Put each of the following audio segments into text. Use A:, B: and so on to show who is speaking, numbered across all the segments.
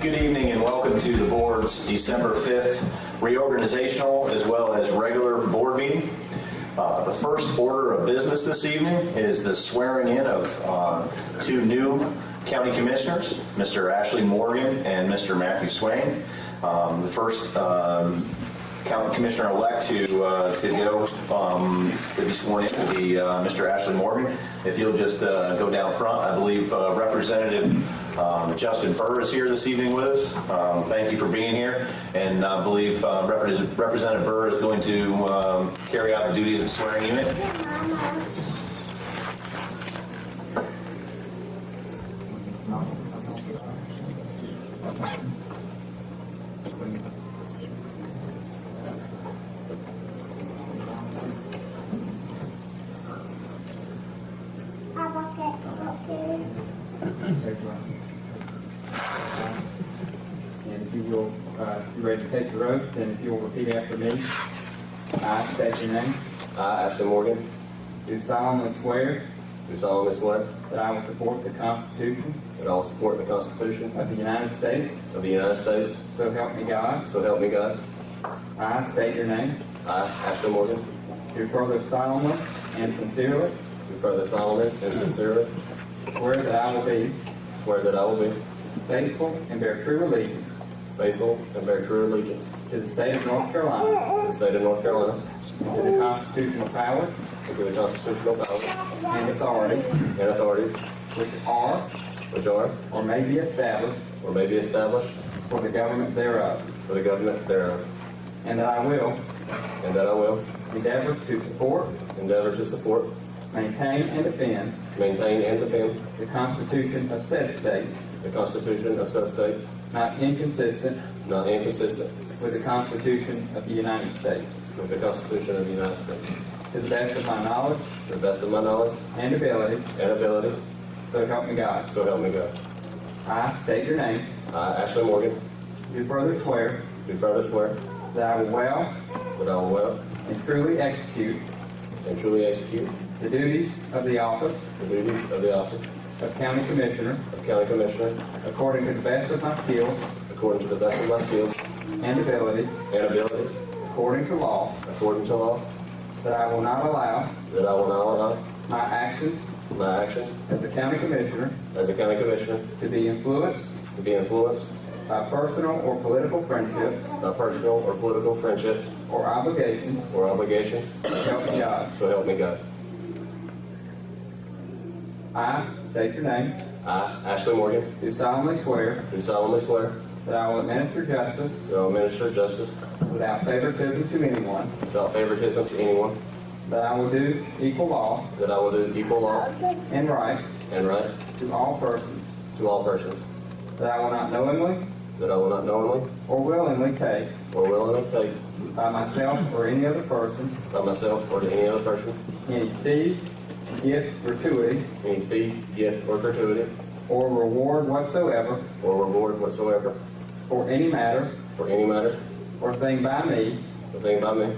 A: Good evening and welcome to the board's December 5th reorganizational as well as regular board meeting. Uh, The first order of business this evening is the swearing in of uh, two new county commissioners, Mr. Ashley Morgan and Mr. Matthew Swain. Um, The first um, county commissioner-elect to uh, to go um, to be sworn in will be uh, Mr. Ashley Morgan. If you'll just uh, go down front, I believe uh, Representative um, Justin Burr is here this evening with us. Um, Thank you for being here, and I believe uh, Repres- Representative Burr is going to um, carry out the duties of swearing unit.
B: I want that soap too.
C: Take your oath. And if you will, uh, if you're ready to take your oath, then if you will repeat after me. I state your name.
D: I, Ashley Morgan,
C: Do solemnly swear
D: do solemnly swear
C: that I will support the Constitution
D: that I will support the Constitution
C: of the United States,
D: of the United States,
C: so help me God.
D: so help me God.
C: I state your name.
D: I, Ashley Morgan,
C: Do further solemnly and sincerely
D: do further solemnly and sincerely
C: swear that I will be
D: swear that I will be
C: faithful and bear true allegiance
D: faithful and bear true allegiance
C: to the state of North Carolina,
D: to the state of North Carolina,
C: and to the constitutional powers
D: and to the constitutional powers
C: and authorities
D: and authorities
C: which are
D: which are
C: or may be established
D: or may be established
C: for the government thereof.
D: for the government thereof,
C: And that I will
D: and that I will
C: endeavor to support,
D: endeavor to support,
C: maintain, and defend
D: maintain, and defend
C: the Constitution of said state,
D: the Constitution of said state,
C: not inconsistent
D: not inconsistent
C: with the Constitution of the United States,
D: with the Constitution of the United States,
C: to the best of my knowledge
D: to the best of my knowledge
C: and ability,
D: and ability,
C: so help me God.
D: so help me God.
C: I state your name,
D: I, Ashley Morgan,
C: do further swear
D: do further swear
C: that I will well
D: that I will well
C: and truly execute
D: and truly execute
C: the duties of the office
D: the duties of the office
C: of County Commissioner
D: of County Commissioner
C: according to the best of my skill
D: according to the best of my skill
C: and ability,
D: and ability,
C: according to law,
D: according to law,
C: that I will not allow
D: that I will not allow
C: my actions
D: my actions
C: as a County Commissioner
D: as a County Commissioner
C: to be influenced
D: to be influenced
C: by personal or political friendships
D: by personal or political friendships
C: or obligations
D: or obligations,
C: to help God.
D: so help me God.
C: I state your name,
D: I, Ashley Morgan,
C: do solemnly swear
D: do solemnly swear
C: that I will administer justice
D: that I will minister justice
C: without favoritism to anyone,
D: without favoritism to anyone,
C: that I will do equal law
D: that I will do equal law
C: and right
D: and right
C: to all persons,
D: to all persons,
C: that I will not knowingly
D: that I will not knowingly
C: or willingly take
D: or willingly take
C: by myself or any other person
D: by myself or to any other person
C: any fee, gift, gratuity,
D: any fee, gift, or gratuity,
C: or reward whatsoever
D: or reward whatsoever,
C: for any matter
D: for any matter,
C: or thing by me
D: or thing by me,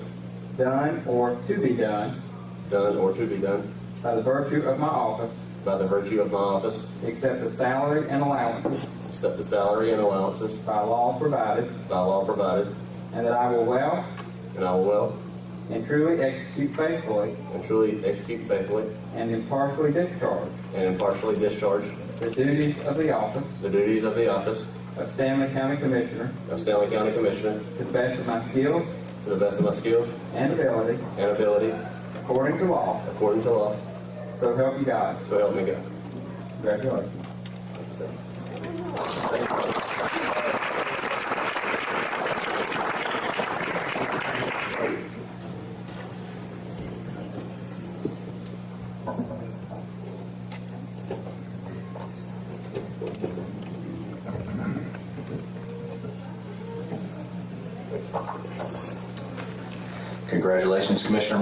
C: done or to be done
D: done or to be done,
C: by the virtue of my office
D: by the virtue of my office,
C: except the salary and allowances
D: except the salary and allowances
C: by law provided,
D: by law provided,
C: and that I will well
D: and I will well
C: and truly execute faithfully
D: and truly execute faithfully
C: and impartially discharge
D: and impartially discharge
C: the duties of the office
D: the duties of the office
C: of Stanley County Commissioner
D: of Stanley County Commissioner
C: to the best of my skills
D: to the best of my skills
C: and ability,
D: and ability,
C: according to law,
D: according to law,
C: so help you God.
D: so help me God.
C: Congratulations.
A: Congratulations, Commissioner